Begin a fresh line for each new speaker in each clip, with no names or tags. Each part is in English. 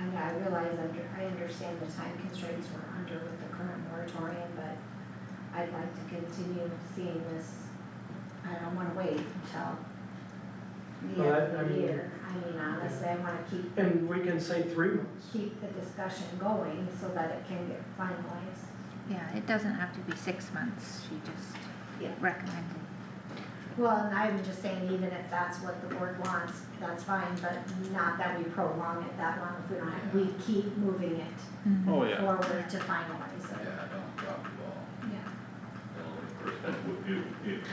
realize, under- I understand the time constraints we're under with the current moratorium, but I'd like to continue seeing this. I don't wanna wait until the
Well, I-
end
I
of the
mean-
year. I mean, honestly, I wanna keep,
And we can say three months.
keep the discussion going so that it can get finalized.
Yeah, it doesn't have to be six months, she just
Yeah.
recommended.
Well, and I'm just saying, even if that's what the board wants, that's fine, but not that we prolong it that long if we don't have, we keep moving it
Mhm.
Oh, yeah,
forward to finalize it.
Yeah, don't drop the ball.
Yeah.
If, if,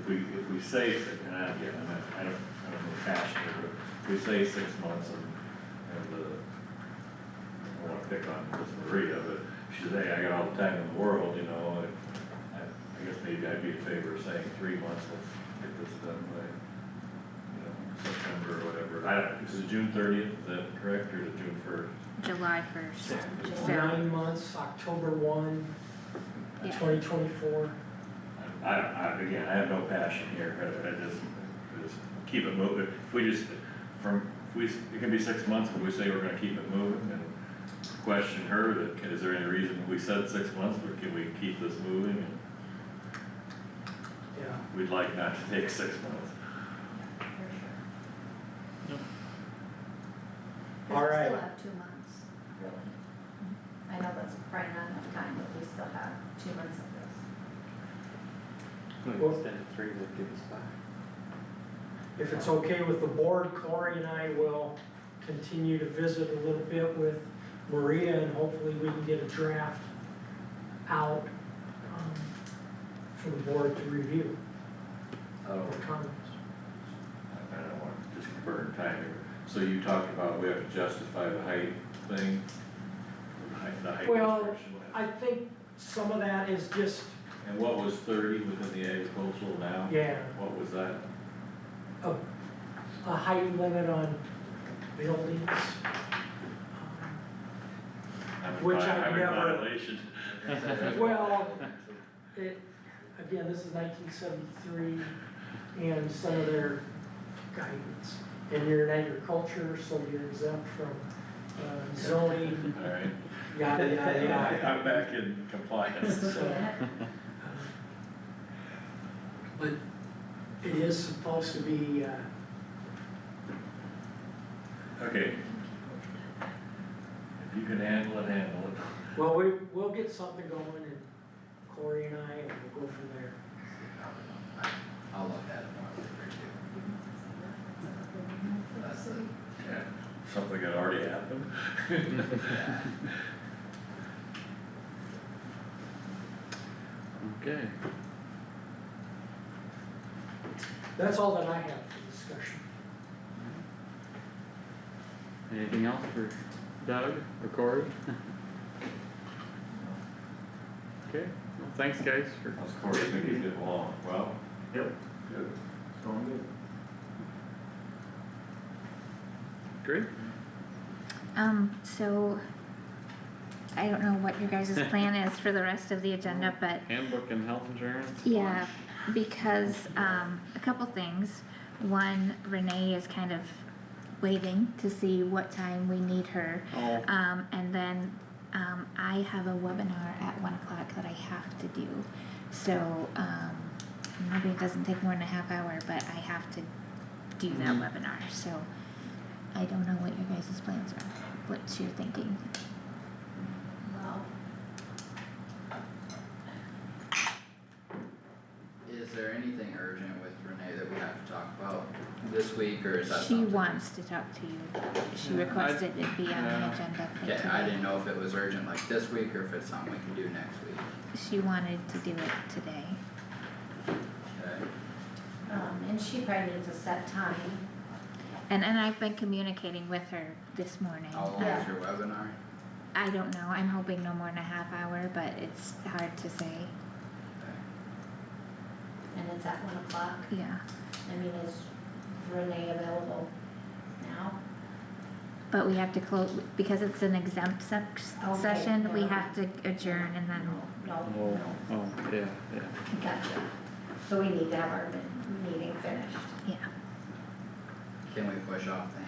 if we, if we say, s- and I, again, I'm not- I don't, I don't know fashion here, but if we say six months and, and the, I don't wanna pick on Miss Maria, but she's, hey, I got all the time in the world, you know, I- I, I guess maybe I'd be in favor of saying three months, let's get this done by, um, you know, September or whatever. I, don't- is it June thirtieth, is that correct, or is it June first?
July first,
July.
so,
Nine months, October one,
Yeah.
twenty twenty-four.
I, I, again, I have no passion here, I, I just, I just keep it moving, if we just, from, if we, it can be six months, but we say we're gonna keep it moving, and question her, that, can- is there any reason we said six months, or can we keep this moving, and
Yeah.
we'd like not to take six months.
For sure.
All
Because we still
right.
have two months. I know that's probably not enough time, but we still have two months of this.
Well-
Extended three would give us five.
If it's okay with the board, Corey and I will continue to visit a little bit with Maria and hopefully we can get a draft out um, for the board to review
Oh.
or comments.
I don't want to just burn time here, so you talked about we have to justify the height thing? The height- The height
Well,
restriction,
I think some of that is just,
and what was thirty within the agricultural now?
yeah,
What was that?
a height limit on buildings. Um,
I'm in
Which
vi-
I've
I'm in
never-
violation.
Well, it, again, this is nineteen seventy-three and some of their guidance. And you're in agriculture, so you're exempt from uh, zoning,
Alright,
yada, yada, yada.
I'm back in compliance, so.
Yeah.
uh, But it is supposed to be, uh,
Okay. If you can handle it, handle it.
well, we, we'll get something going and Corey and I, and we'll go from there.
I'll look at it more with review. That's it.
Yeah, Something that already happened.
okay.
That's all that I have for discussion.
Anything else for Doug or Corey? Okay, well, thanks guys for,
How's Cory think he's getting along? Well?
Yep.
Good.
great.
um, so I don't know what your guys' plan is for the rest of the agenda, but
Handbook and health insurance?
Yeah, because, um, a couple things. One, Renee is kind of waiting to see what time we need her.
Oh,
Um, and then, um, I have a webinar at one o'clock that I have to do. So, um, maybe it doesn't take more than a half hour, but I have to do that
Mm-hmm.
webinar, so I don't know what your guys' plans are, what you're thinking.
Well,
Is there anything urgent with Renee that we have to talk about this week, or is that
She
something?
wants to talk to you. She
Yeah, I-
requested it be on the
yeah.
agenda for
Okay, I
today.
didn't know if it was urgent like this week, or if it's something we can do next week,
She wanted to do it today.
okay?
um, and she probably needs a set time.
And and I've been communicating with her this morning.
How
Oh.
long
Yeah.
is your webinar?
I don't know, I'm hoping no more than a half hour, but it's hard to say,
Okay.
And it's at one o'clock.
yeah.
I mean, is Renee available now?
But we have to close, because it's an exempt sec-
Okay,
session, we
yeah.
have to adjourn and then,
No,
oh, oh, yeah, yeah.
gotcha. So we need to have our min- meeting finished.
yeah.
Can we push off the